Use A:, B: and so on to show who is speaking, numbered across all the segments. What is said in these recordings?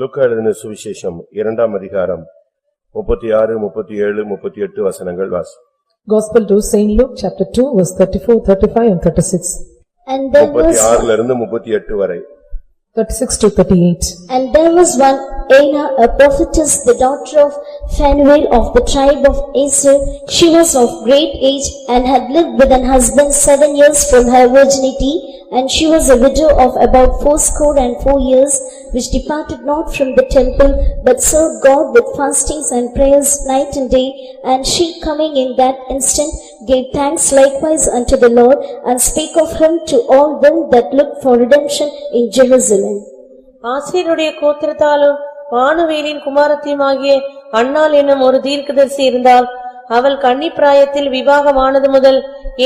A: லூக்கா எழுதின சுவிசேஷம் இரண்டாம் அதிகாரம் முப்பத்தி ஆறு முப்பத்தி ஏழு முப்பத்தி எட்டு வசனங்கள் வாசி
B: Gospel to Saint Luke, chapter 2, verse 34, 35 and 36.
C: And there
A: முப்பத்தி
C: was,
A: ஆறுல இருந்து முப்பத்தி எட்டு வரை
B: 36 to 38.
C: and there was one Anna, a prophetess, the daughter of Phanuel of the tribe of Asher. She was of great age and had lived with an husband seven years from her virginity, and she was a widow of about fourscore and four years, which departed not from the temple, but served God with fastings and prayers night and day. And she coming in that instant gave thanks likewise unto the Lord, and spake of him to all them that looked for redemption in Jerusalem.
D: ஆசீருடைய கோத்திரத்தாலும் வானுவேலின் குமாரத்தியுமாகிய அன்னாள் என்னும் ஒரு தீர்க்கதரிசி இருந்தாள் அவள் கன்னி பிராயத்தில் விவாகமானது முதல்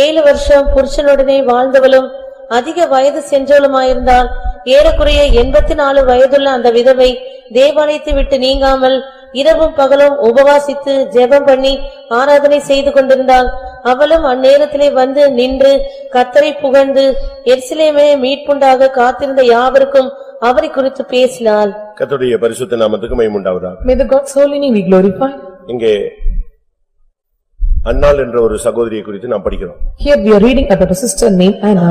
D: ஏழு வருஷம் புருஷனுடனே வாழ்ந்தவளும் அதிக வயது சென்றவளுமாயிருந்தாள் ஏறக்குறைய எண்பத்தி நாலு வயதுள்ள அந்த விதவை தேவாலயத்தை விட்டு நீங்காமல் இரவும் பகலும் உபவாசித்து ஜெபம் பண்ணி ஆராதனை செய்து கொண்டிருந்தாள் அவளும் அந்நேரத்திலே வந்து நின்று கத்தரை புகழ்ந்து எருசலேமே மீட்புண்டாக காத்திருந்த யாவருக்கும் அவரை குறித்து பேசினாள்
A: கர்த்தருடைய பரிசுத்த நாமத்துக்கு மைமுண்டாவதாக
B: May the God's holy name be glorified.
A: இங்கே அன்னாள் என்ற ஒரு சகோதரியை குறித்து நாம் படிக்கிறோம்
B: Here we are reading about a sister named Anna.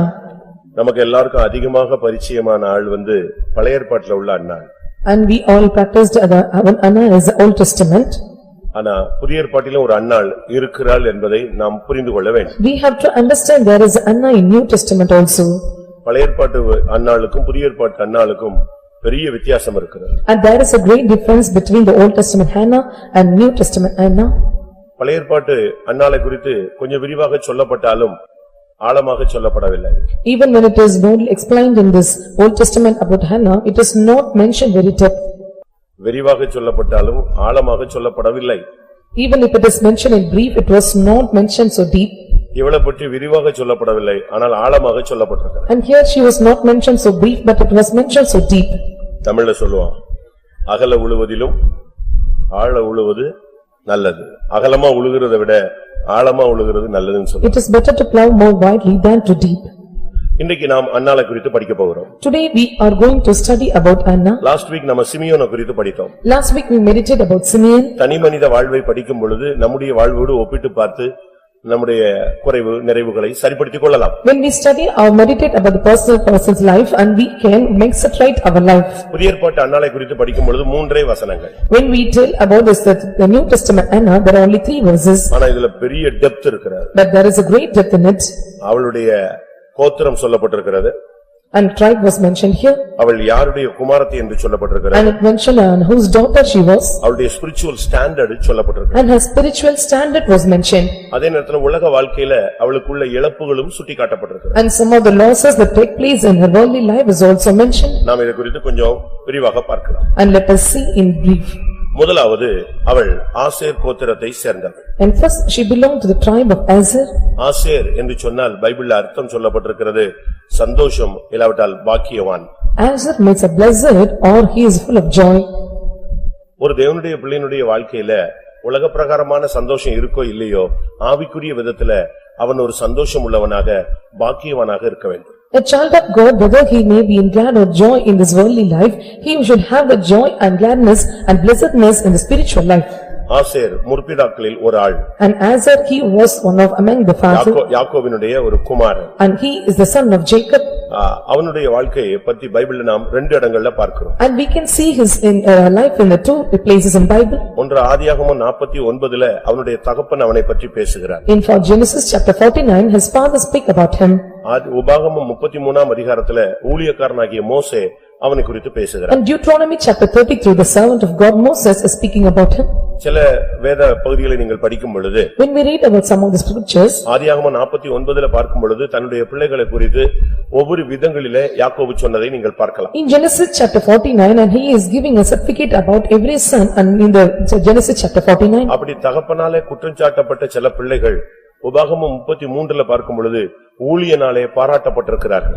A: நமக்கு எல்லாருக்கும் அதிகமாக பரிச்சயமான ஆள் வந்து பழைய ஏற்பாட்டில் உள்ள அன்னாள்
B: And we all practiced Anna- when Anna is the Old Testament.
A: ஆனா புதிய ஏற்பாட்டிலும் ஒரு அன்னாள் இருக்கிறாள் என்பதை நாம் புரிந்து கொள்ள வேண்டும்
B: We have to understand there is Anna in New Testament also.
A: பழைய ஏற்பாட்டு அன்னாளுக்கும் புதிய ஏற்பாட்டு அன்னாளுக்கும் பெரிய வித்தியாசம் இருக்கிறது
B: And there is a great difference between the Old Testament Hannah and New Testament Anna.
A: பழைய ஏற்பாட்டு அன்னாலை குறித்து கொஞ்சம் விரிவாக சொல்லப்பட்டாலும் ஆழமாக சொல்லப்படவில்லை
B: Even when it is known explained in this Old Testament about Hannah, it is not mentioned very depth.
A: விரிவாக சொல்லப்பட்டாலும் ஆழமாக சொல்லப்படவில்லை
B: Even if it is mentioned in brief, it was not mentioned so deep.
A: இவளை பற்றி விரிவாக சொல்லப்படவில்லை ஆனால் ஆழமாக சொல்லப்பட்டிருக்கிறது
B: And here she was not mentioned so brief, but it was mentioned so deep.
A: தமிழ்ல சொல்லுவான் அகல உழுவதிலும் ஆழ உழுவது நல்லது அகலமா உழுகிறதை விட ஆழமா உழுகிறது நல்லதுன்னு சொல்லுவான்
B: It is better to plow more widely than to deep.
A: இன்னைக்கு நாம் அன்னாலை குறித்து படிக்க போகிறோம்
B: Today we are going to study about Anna.
A: Last week நம்ம சிமியோனை குறித்து படித்தோம்
B: Last week we meditated about Simeon
A: தனி மனித வாழ்வை படிக்கும் பொழுது நம்முடைய வாழ்வோடு ஒப்பிட்டு பார்த்து நம்முடைய குறைவு நிறைவுகளை சரிப்படுத்திக் கொள்ளலாம்
B: when we study or meditate about the personal person's life and we can make it right our life.
A: புதிய ஏற்பாட்டு அன்னாலை குறித்து படிக்கும் பொழுது மூன்றே வசனங்கள்
B: When we tell about this, that the New Testament Anna, there are only three verses,
A: ஆனா இதுல பெரிய டெப்த் இருக்கிறது
B: but there is a great depth in it.
A: அவளுடைய கோத்திரம் சொல்லப்பட்டிருக்கிறது
B: And tribe was mentioned here
A: அவள் யாருடைய குமாரத்தி என்று சொல்லப்பட்டிருக்கிறது
B: and it mentioned on whose daughter she was
A: அவளுடைய ஸ்பிரிச்சுவல் ஸ்டாண்டர்டு சொல்லப்பட்டிருக்கிறது
B: and her spiritual standard was mentioned
A: அதே நேரத்துல உலக வாழ்க்கையில அவளுக்குள்ள இழப்புகளும் சுட்டி காட்டப்பட்டிருக்கிறது
B: and some of the losses that take place in her worldly life is also mentioned
A: நாம் இதை குறித்து கொஞ்சம் விரிவாக பார்க்கலாம்
B: and let us see in brief.
A: முதலாவது அவள் ஆசேர் கோத்திரத்தை சேர்ந்தவள்
B: And first, she belonged to the tribe of Azar
A: Asher என்று சொன்னால் பைபிள்ல அர்த்தம் சொல்லப்பட்டிருக்கிறது சந்தோஷம் இல்லாவிட்டால் பாக்கியவான்
B: Azar means a blessed or he is full of joy.
A: ஒரு தேவனுடைய பிள்ளையினுடைய வாழ்க்கையில உலக பிரகாரமான சந்தோஷம் இருக்கோ இல்லையோ ஆவிக்குரிய விதத்துல அவன் ஒரு சந்தோஷம் உள்ளவனாக பாக்கியவனாக இருக்க வேண்டும்
B: A child of God, whether he may be in glad or joy in this worldly life, he should have the joy and gladness and blessedness in the spiritual life.
A: Asher முற்பிதாக்களில் ஒரு ஆள்
B: And Azar, he was one of among the fathers
A: யாக்கோ- யாக்கோபினுடைய ஒரு குமாரன்
B: and he is the son of Jacob.
A: ஆ, அவனுடைய வாழ்க்கையை பத்தி பைபிள்ல நாம் ரெண்டு இடங்கள்ல பார்க்கிறோம்
B: And we can see his in uh, life in the two places in Bible.
A: ஒன்று ஆதியாகமம் நாற்பத்தி ஒன்பதுல அவனுடைய தகப்பன் அவனை பற்றி பேசுகிறார்
B: In for Genesis chapter forty-nine, his father speak about him.
A: ஆதி- உபாகமம் முப்பத்தி மூணாம் அதிகாரத்துல ஊழியக்காரனாகிய மோசே அவனை குறித்து பேசுகிறார்
B: And Deuteronomy chapter thirty-three, the servant of God Moses is speaking about him.
A: சில வேத பகுதிகளை நீங்கள் படிக்கும் பொழுது
B: When we read about some of the scriptures,
A: ஆதியாகமம் நாற்பத்தி ஒன்பதுல பார்க்கும் பொழுது தன்னுடைய பிள்ளைகளை குறித்து ஒவ்வொரு விதங்களிலே யாக்கோபு சொன்னதை நீங்கள் பார்க்கலாம்
B: in Genesis chapter forty-nine, and he is giving a certificate about every son, and in the Genesis chapter forty-nine,
A: அப்படி தகப்பனாலே குற்றம் சாட்டப்பட்ட சில பிள்ளைகள் உபாகமம் முப்பத்தி மூன்றுல பார்க்கும் பொழுது ஊழியனாலே பாராட்டப்பட்டிருக்கிறார்கள்